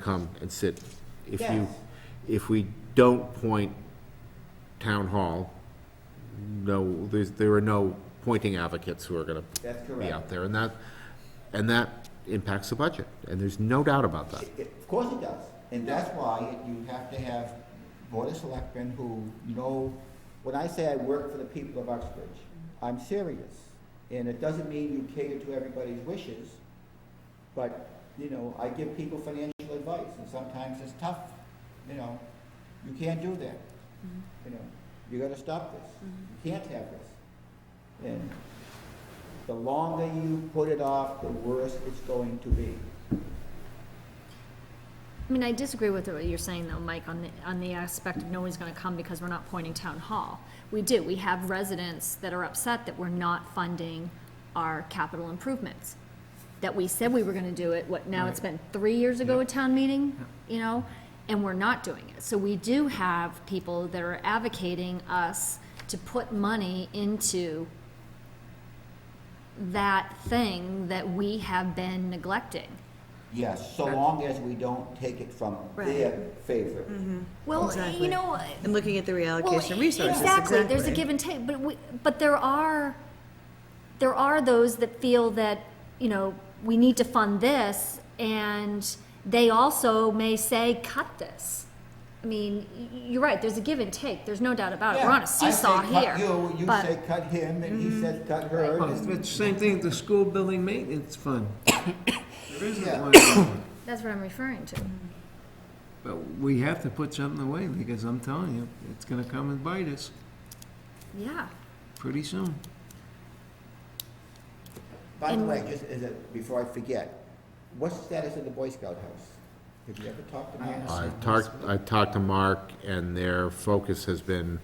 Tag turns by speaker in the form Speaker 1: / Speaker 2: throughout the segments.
Speaker 1: come and sit. If you,
Speaker 2: Yes.
Speaker 1: if we don't point town hall, no, there's, there are no pointing advocates who are gonna
Speaker 2: That's
Speaker 1: be
Speaker 2: correct.
Speaker 1: out there, and that, and that impacts the budget, and there's no doubt about that.
Speaker 2: It- it- Of course it does, and that's why you have to have board of selectmen who know, when I say I work for the people of Uxbridge, I'm serious. And it doesn't mean you cater to everybody's wishes, but, you know, I give people financial advice, and sometimes it's tough, you know, you can't do that. You know, you gotta stop this, you can't have this. And the longer you put it off, the worse it's going to be.
Speaker 3: I mean, I disagree with what you're saying though, Mike, on the, on the aspect of no one's gonna come because we're not pointing town hall. We do, we have residents that are upset that we're not funding our capital improvements. That we said we were gonna do it, what, now it's been three years ago a town meeting, you know, and we're not doing it. So we do have people that are advocating us to put money into that thing that we have been neglecting.
Speaker 2: Yes, so long as we don't take it from
Speaker 3: Right. Mm-hmm.
Speaker 2: their favor.
Speaker 3: Well,
Speaker 4: Exactly.
Speaker 3: you know,
Speaker 4: And looking at the
Speaker 3: Well,
Speaker 4: reallocation of resources,
Speaker 3: Exactly, there's a give and take, but we, but there are, there are those that feel that, you know, we need to fund this, and they also may say, cut this. I mean, y- y- you're right, there's a give and take, there's no doubt about it, we're on a seesaw
Speaker 2: I
Speaker 3: here.
Speaker 2: say cut you, you
Speaker 3: but- Mm-hmm.
Speaker 2: say cut him, and he says cut her.
Speaker 5: Well,
Speaker 2: and-
Speaker 5: It's the same thing, with the school building maintenance fund. There
Speaker 2: Yeah.
Speaker 5: isn't one,
Speaker 3: That's what I'm referring to.
Speaker 2: Mm-hmm.
Speaker 5: but we have to put something away, because I'm telling you, it's gonna come and bite us
Speaker 3: Yeah,
Speaker 5: pretty soon.
Speaker 2: By the
Speaker 3: and-
Speaker 2: way, just as a, before I forget, what's the status of the Boy Scout house? Have you ever talked to Mark?
Speaker 1: I've talked, I've talked to Mark, and their focus has been,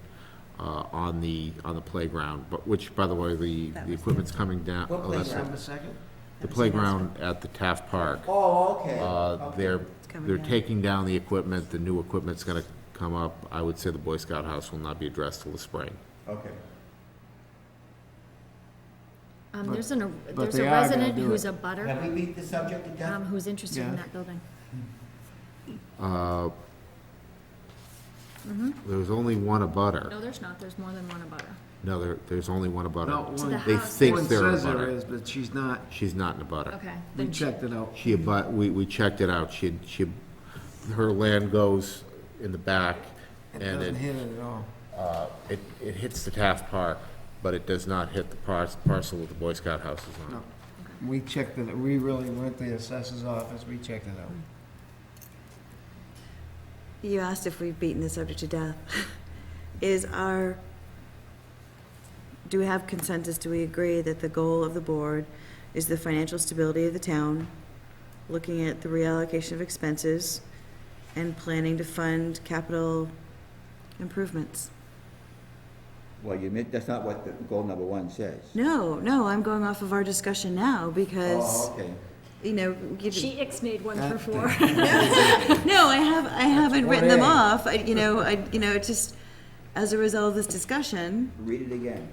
Speaker 1: uh, on the, on the playground, but, which, by the way, the, the equipment's coming down.
Speaker 5: What
Speaker 1: oh, that's
Speaker 5: playground, a second?
Speaker 1: right, The playground at the Taft Park.
Speaker 2: Oh, okay.
Speaker 1: Uh,
Speaker 2: okay.
Speaker 1: They're,
Speaker 4: coming
Speaker 1: they're
Speaker 4: down.
Speaker 1: taking down the equipment, the new equipment's gonna come up. I would say the Boy Scout house will not be addressed till the spring.
Speaker 2: Okay.
Speaker 3: um,
Speaker 5: But-
Speaker 3: there's an,
Speaker 5: but
Speaker 3: there's
Speaker 5: they
Speaker 3: a
Speaker 5: are gonna
Speaker 3: resident
Speaker 5: do
Speaker 3: who's
Speaker 5: it.
Speaker 3: a butter,
Speaker 2: Have we beat the subject to
Speaker 3: um,
Speaker 2: death?
Speaker 3: who's interested in
Speaker 5: Yeah.
Speaker 3: that building.
Speaker 1: Uh, There's only one abutter.
Speaker 3: No, there's not, there's more than one a butter.
Speaker 1: No, there, there's only one
Speaker 5: No,
Speaker 1: abutter.
Speaker 3: To the
Speaker 5: one,
Speaker 1: They
Speaker 3: house.
Speaker 1: think
Speaker 5: one
Speaker 1: they're a
Speaker 5: says there
Speaker 1: butter.
Speaker 5: is, but she's not.
Speaker 1: She's not an abutter.
Speaker 3: Okay.
Speaker 5: We
Speaker 3: then she-
Speaker 5: checked it out.
Speaker 1: She abut, we, we checked it out. She, she, her land goes in the back
Speaker 5: It
Speaker 1: and
Speaker 5: doesn't
Speaker 1: it,
Speaker 5: hit it at all.
Speaker 1: uh, it, it hits the Taft Park, but it does not hit the par- parcel that the Boy Scout house is on.
Speaker 5: No. We checked it, we really went to the assessor's office, we checked it out.
Speaker 4: You asked if we've beaten the subject to death. Is our, do we have consensus, do we agree that the goal of the board is the financial stability of the town, looking at the reallocation of expenses, and planning to fund capital improvements?
Speaker 2: Well, you meant, that's not what the goal number one says.
Speaker 4: No, no, I'm going off of our discussion now,
Speaker 2: Oh,
Speaker 4: because,
Speaker 2: okay.
Speaker 4: you know, you-
Speaker 3: She ixnayed one through four.
Speaker 4: No, I have, I haven't written them
Speaker 5: 1A.
Speaker 4: off, I, you know, I, you know, it's just, as a result of this discussion,
Speaker 2: Read it again.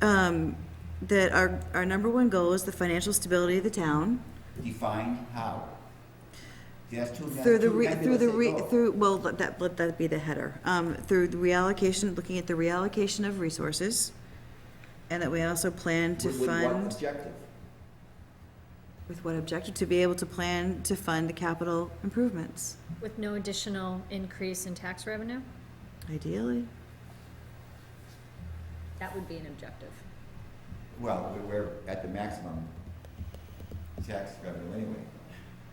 Speaker 4: um, that our, our number one goal is the financial stability of the town.
Speaker 2: Define how. See, That's too, that's
Speaker 4: Through the,
Speaker 2: too
Speaker 4: re- through the,
Speaker 2: nebulous
Speaker 4: re-
Speaker 2: a goal.
Speaker 4: through, well, let that, let that be the header, um, through the reallocation, looking at the reallocation of resources. And that we also plan to
Speaker 2: With- with what
Speaker 4: fund,
Speaker 2: objective?
Speaker 4: with what objective, to be able to plan to fund the capital improvements,
Speaker 3: With no additional increase in tax revenue?
Speaker 4: ideally.
Speaker 3: That would be an objective.
Speaker 2: Well, we're- we're at the maximum tax revenue anyway.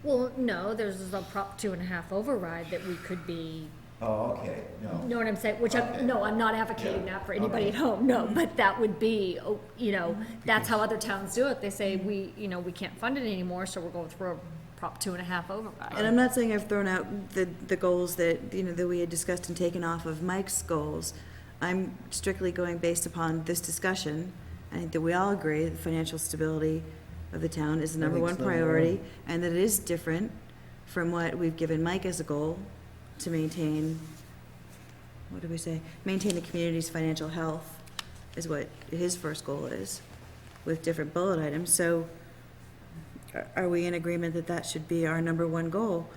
Speaker 3: Well, no, there's a prop two and a half override that we could be,
Speaker 2: Oh, okay,
Speaker 3: know
Speaker 2: no.
Speaker 3: what I'm saying, which I'm, no, I'm not advocating
Speaker 2: Yeah.
Speaker 3: that for anybody at home, no, but that would be, oh, you know, that's how other towns do it, they say, we, you know, we can't fund it anymore, so we're going through a prop two and a half
Speaker 4: And
Speaker 3: override.
Speaker 4: I'm not saying I've thrown out the, the goals that, you know, that we had discussed and taken off of Mike's goals. I'm strictly going based upon this discussion. I think that we all agree that financial stability of the town is the
Speaker 5: I
Speaker 4: number
Speaker 5: think
Speaker 4: one
Speaker 5: it's number
Speaker 4: priority, and that it is different from what we've given Mike as a goal to maintain, what did we say? Maintain the community's financial health is what his first goal is, with different bullet items. So are- are we in agreement that that should be our number one goal?